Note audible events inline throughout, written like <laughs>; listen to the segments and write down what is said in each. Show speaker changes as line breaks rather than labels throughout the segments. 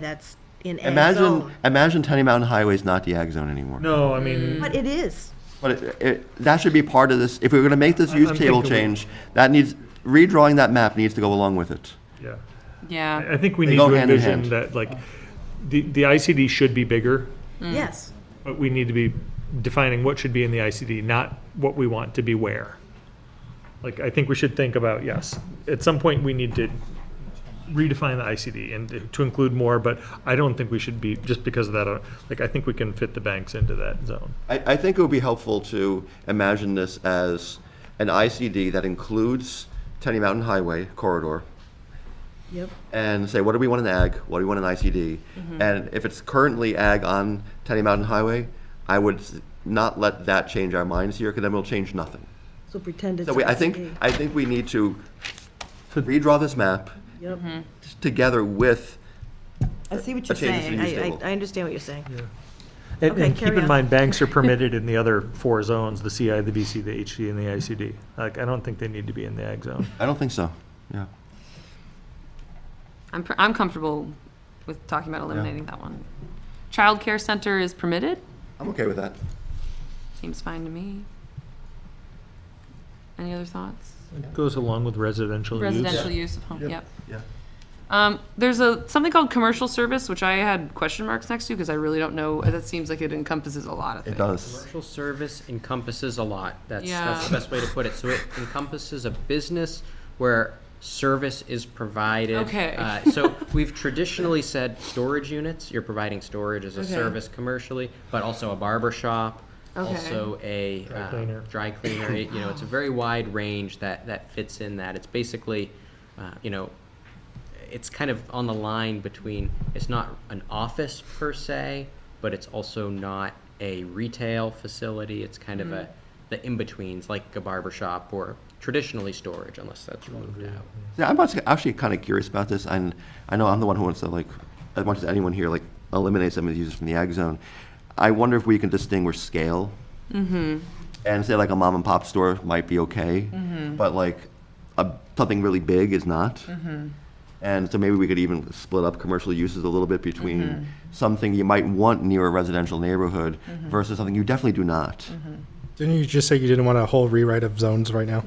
that's in ag
Imagine,
zone.
imagine Tenny Mountain Highway is not the ag zone anymore.
No, I mean,
But it is.
But it, it, that should be part of this, if we're gonna make this use
I'm
table
thinking we-
change, that needs, redrawing that map needs to go along with it.
yeah.
Yeah,
I I think we
They
need
go
to
hand in
envision
hand.
that, like, the, the ICD should be bigger,
Yes.
but we need to be defining what should be in the ICD, not what we want to be where. Like, I think we should think about, yes, at some point, we need to redefine the ICD and to include more, but I don't think we should be, just because of that, uh, like, I think we can fit the banks into that zone.
I, I think it would be helpful to imagine this as an ICD that includes Tenny Mountain Highway corridor
Yep.
and say, what do we want in ag? What do we want in ICD? And if it's currently ag on Tenny Mountain Highway, I would s- not let that change our minds here because then we'll change nothing.
So pretend it's.
So we, I think,
ICD.
I think we need to redraw this map
Yep.
together with
I see what
a
you're
change to
saying.
the use
I,
table.
I, I understand what you're saying.
And,
Okay,
and keep
carry
in
on. <laughs>
mind, banks are permitted in the other four zones, the CI, the BC, the HD, and the ICD. Like, I don't think they need to be in the ag zone.
I don't think so, yeah.
I'm, pr- I'm comfortable with talking about eliminating that one. Childcare center is permitted,
I'm okay with that.
seems fine to me. Any other thoughts?
It goes along with residential use.
Residential use of home, yep.
Yeah.
Um, there's a, something called commercial service, which I had question marks next to, because I really don't know, that seems like it encompasses a lot of
It
things.
does.
Commercial service encompasses a lot. That's, that's the
Yeah.
best way to put it. So it encompasses a business where service is provided.
Okay.
Uh, so we've traditionally said storage units. You're providing storage as a
Okay.
service commercially, but also a barber shop,
Okay.
also a
Dry
um,
cleaner.
dry cleaner. It- you know, it's a very wide range that that fits in that. It's basically, uh, you know, it's kind of on the line between it's not an office per se, but it's also not a retail facility. It's kind
Mm-hmm.
of a the in betweens, like a barber shop or traditionally storage, unless that's removed
Mm-hmm.
out.
Yeah, I'm actually- actually kind of curious about this, and I know I'm the one who wants to like, as much as anyone here, like eliminate some of these uses from the ag zone. I wonder if we can distinguish scale. And say like a mom and pop store might be okay, but like a, something really big is not. And so maybe we could even split up commercial uses a little bit between something you might want near a residential neighborhood versus something you definitely do not.
Didn't you just say you didn't want a whole rewrite of zones
<laughs>
right now?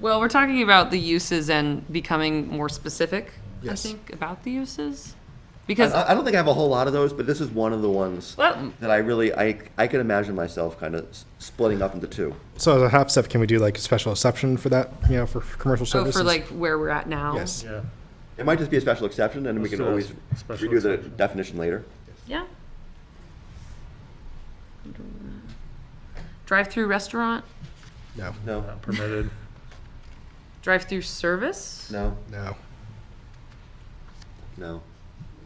Well, we're talking about the uses and becoming more specific, I
Yes.
think, about the uses.
I,
Because
I don't think I have a whole lot of those, but this is one of the ones.
Well,
that I really I I could imagine myself kind of splitting up into two.
So as a half step, can we do like a special exception for that, you know, for, for commercial
oh,
services?
for like where we're at now.
Yes.
Yeah.
It might just be a special exception, and we
Let's
can
do a
always
special
redo the
exception.
definition later.
Yeah. Drive-through restaurant,
No,
No,
Not permitted.
drive-through service?
no,
no.
no.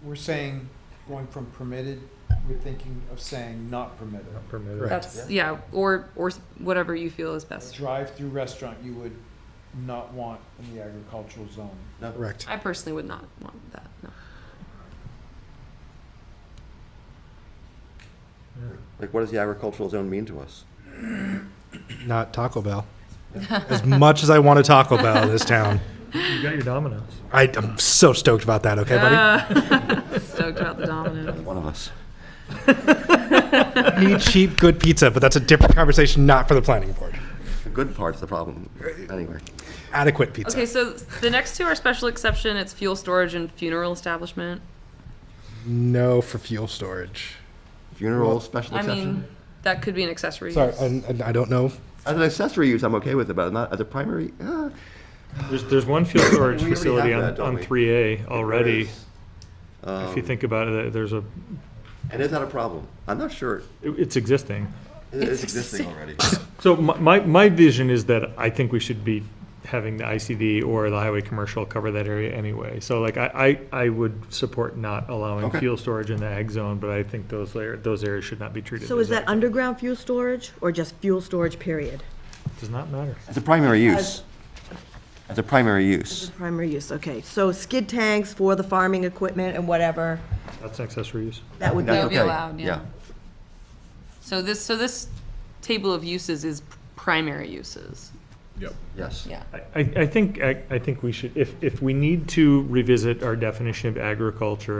We're saying, going from permitted, we're thinking of saying not permitted.
Not permitted.
Right.
That's, yeah, or, or s- whatever you feel is best.
Drive-through restaurant, you would not want in the agricultural zone.
Correct.
I personally would not want that, no.
Like, what does the agricultural zone mean to us?
Not Taco Bell. As much as I want a Taco Bell in this town,
You got your dominoes.
I, I'm so stoked about that. Okay, buddy.
Stoked about the Domino's.
One of us.
Need cheap, good pizza, but that's a different conversation, not for the planning board.
The good part's the problem. Anyway,
Adequate pizza.
Okay, so the next two are special exception, it's fuel storage and funeral establishment.
No for fuel storage.
funeral special
I
exception.
mean, that could be an accessory
Sorry,
use.
I, I- I don't know.
as an accessory use, I'm okay with it, but not as a primary. Uh,
There's, there's one fuel storage
We already
facility
have
on,
that, don't
on
we?
three A already. If you
Um,
think about it, there's a,
and is that a problem? I'm not sure.
it- it's existing.
It- It's,
<laughs>
existing already.
So my, my, my vision is that I think we should be having the ICD or the highway commercial cover that area anyway. So like I, I, I would support not allowing
Okay.
fuel storage in the ag zone, but I think those layer, those areas should not be treated.
So
as
is that underground fuel storage or just fuel storage period?
Does not matter.
It's a primary use. It's a primary use.
Primary use, okay. So skid tanks for the farming equipment and whatever,
That's an accessory use.
that would be,
That
That's
would be
okay.
allowed, yeah. So this, so this table of uses is primary uses.
Yes.
Yeah.
I, I I think, I I think we should, if, if we need to revisit our definition of agriculture,